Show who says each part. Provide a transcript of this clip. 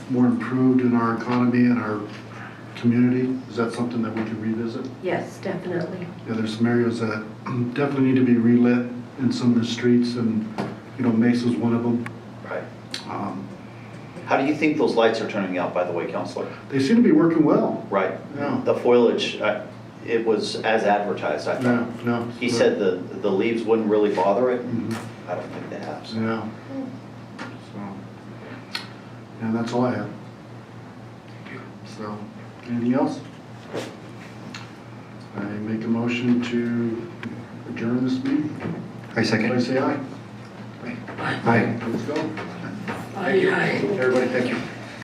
Speaker 1: more improved in our economy and our community? Is that something that we could revisit?
Speaker 2: Yes, definitely.
Speaker 1: Yeah, there's some areas that definitely need to be relit in some of the streets and, you know, Mesa's one of them.
Speaker 3: Right.
Speaker 1: Um,
Speaker 3: How do you think those lights are turning out, by the way, Counselor?
Speaker 1: They seem to be working well.
Speaker 3: Right.
Speaker 1: Yeah.
Speaker 3: The foliage, I- it was as advertised, I
Speaker 1: Yeah,
Speaker 3: thought.
Speaker 1: no.
Speaker 3: He said the, the leaves wouldn't really bother it.
Speaker 1: Mhm.
Speaker 3: I don't think they have. so.
Speaker 1: Yeah. So, and that's all I have. So, anything else? I make a motion to adjourn this meeting.
Speaker 4: I
Speaker 1: Everybody
Speaker 4: second.
Speaker 1: say aye.
Speaker 4: Aye.
Speaker 1: Let's go.
Speaker 2: Aye.
Speaker 1: Everybody, thank you.